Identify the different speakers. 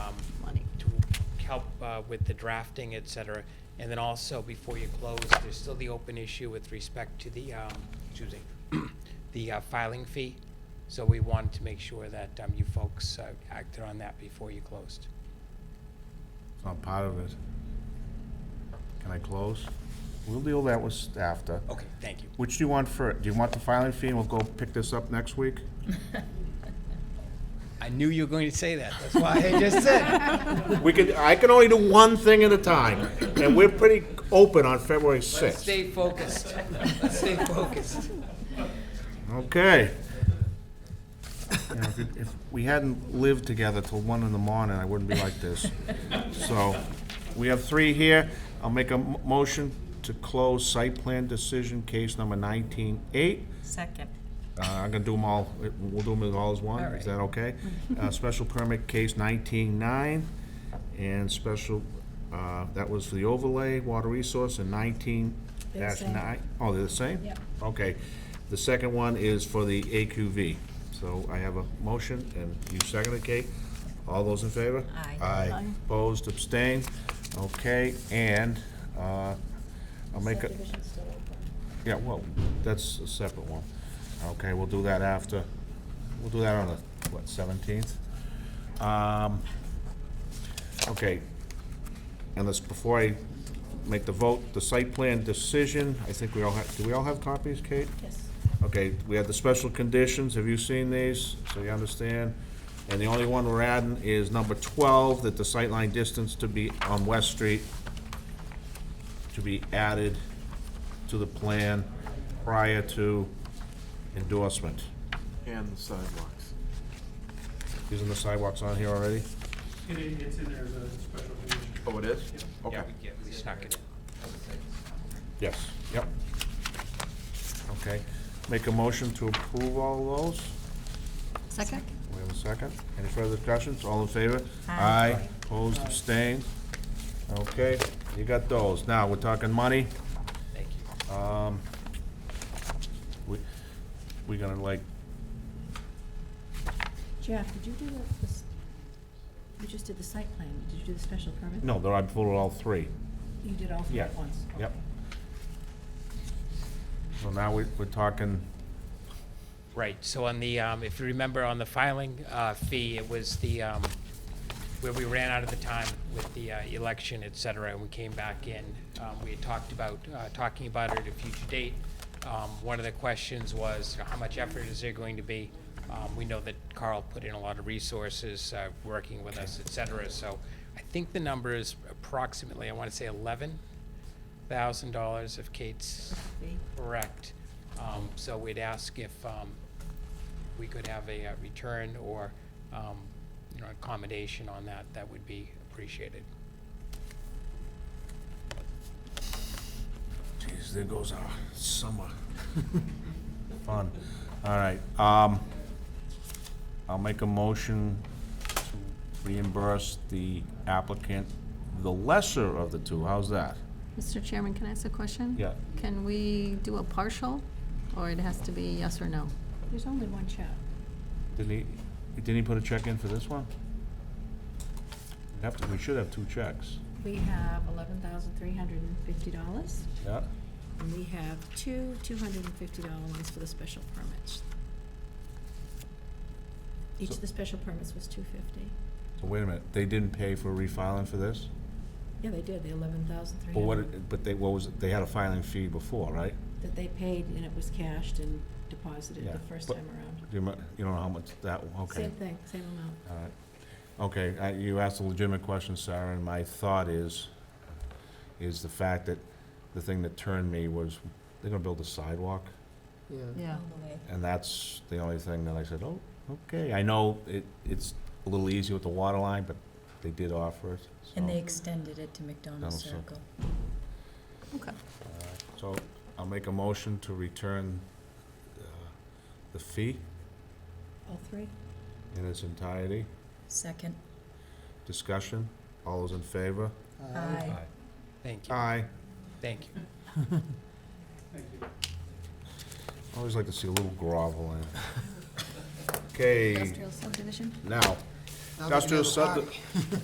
Speaker 1: um, help uh, with the drafting, et cetera. And then also, before you close, there's still the open issue with respect to the, um, excuse me, the uh, filing fee. So we wanted to make sure that um, you folks uh, acted on that before you closed.
Speaker 2: It's not part of it. Can I close?
Speaker 3: We'll deal that with after.
Speaker 1: Okay, thank you.
Speaker 3: Which do you want for, do you want the filing fee, and we'll go pick this up next week?
Speaker 1: I knew you were going to say that. That's why I just said.
Speaker 3: We could, I can only do one thing at a time, and we're pretty open on February 6th.
Speaker 1: Stay focused. Stay focused.
Speaker 3: Okay. You know, if it- If we hadn't lived together till one in the morning, I wouldn't be like this. So, we have three here. I'll make a m- motion to close site plan decision case number 19-8.
Speaker 4: Second.
Speaker 3: Uh, I'm gonna do them all, we'll do them all as one, is that okay? Uh, special permit case nineteen-nine, and special, uh, that was for the overlay, water resource, and nineteen dash nine. Oh, they're the same? Yeah. Okay, the second one is for the AQV, so I have a motion, and you second it, Kate? All those in favor?
Speaker 4: Aye.
Speaker 3: Aye, opposed, abstained, okay, and, uh, I'll make a. Yeah, well, that's a separate one. Okay, we'll do that after, we'll do that on the, what, seventeenth? Um, okay, and this, before I make the vote, the site plan decision, I think we all have, do we all have copies, Kate?
Speaker 5: Yes.
Speaker 3: Okay, we had the special conditions, have you seen these, so you understand? And the only one we're adding is number twelve, that the sightline distance to be on West Street to be added to the plan prior to endorsement.
Speaker 6: And the sidewalks.
Speaker 3: Isn't the sidewalks on here already?
Speaker 7: It, it's in there as a special condition.
Speaker 6: Oh, it is?
Speaker 1: Yeah,
Speaker 6: Okay.
Speaker 1: we- yeah, we snuck it in.
Speaker 3: Yes. Yep. Okay, make a motion to approve all those.
Speaker 4: Second?
Speaker 3: We have a second. Any further discussions? All in favor?
Speaker 4: Aye.
Speaker 3: Opposed, abstained? Okay, you got those. Now, we're talking money.
Speaker 1: Thank you.
Speaker 3: Um, we, we gonna like,
Speaker 5: Jeff, did you do the, this- you just did the site plan, did you do the special permit?
Speaker 3: no, there, I voted all three.
Speaker 5: You did all three
Speaker 3: Yeah,
Speaker 5: at once?
Speaker 3: yep.
Speaker 5: Okay.
Speaker 3: So now we, we're talking
Speaker 1: Right, so on the, um, if you remember on the filing, uh, fee, it was the, um, where we ran out of the time with the, uh, election, et cetera, and we came back in. Um, we had talked about, uh, talking about it at a future date. Um, one of the questions was, how much effort is there going to be? Um, we know that Carl put in a lot of resources, uh, working with us, et cetera, so I think the number is approximately, I wanna say eleven thousand dollars if Kate's
Speaker 4: Fee.
Speaker 1: Correct. Um, So we'd ask if um, we could have a uh, return or, um, you know, accommodation on that, that would be appreciated.
Speaker 3: Jeez, there goes our summer. Fun. All right, um, I'll make a motion to reimburse the applicant, the lesser of the two, how's that?
Speaker 8: Mr. Chairman, can I ask a question?
Speaker 3: Yeah.
Speaker 8: Can we do a partial, or it has to be yes or no?
Speaker 5: There's only one check.
Speaker 3: Didn't he, didn't he put a check in for this one? We have to, we should have two checks.
Speaker 5: We have eleven thousand three hundred and fifty dollars,
Speaker 3: Yeah.
Speaker 5: and we have two two hundred and fifty dollar ones for the special permits. Each of the special permits was two fifty.
Speaker 3: So wait a minute, they didn't pay for refiling for this?
Speaker 5: Yeah, they did, the eleven thousand three
Speaker 3: But what,
Speaker 5: hundred
Speaker 3: it- but they, what was, it- they had a filing fee before, right?
Speaker 5: that they paid, and it was cashed and deposited
Speaker 3: Yeah,
Speaker 5: the first
Speaker 3: but-
Speaker 5: time around.
Speaker 3: Do you, mu- you don't know how much that, okay.
Speaker 5: Same thing, same amount.
Speaker 3: All right. Okay, I- you asked a legitimate question, Sarah, and my thought is, is the fact that the thing that turned me was, they're gonna build a sidewalk,
Speaker 6: Yeah.
Speaker 8: Yeah.
Speaker 3: and that's the only thing that I said, oh, okay. I know it, it's a little easier with the water line, but they did offer it, so.
Speaker 4: And they extended it to McDonald's
Speaker 3: Donald's Circle.
Speaker 4: Circle.
Speaker 8: Okay.
Speaker 3: So I'll make a motion to return uh, the fee
Speaker 5: All three?
Speaker 3: in its entirety.
Speaker 4: Second.
Speaker 3: Discussion, all those in favor?
Speaker 4: Aye.
Speaker 1: Thank you,
Speaker 3: Aye.
Speaker 1: thank you.
Speaker 7: Thank you.
Speaker 3: I always like to see a little grovel in. Okay,
Speaker 8: Industrial subdivision?
Speaker 3: now, industrial sub,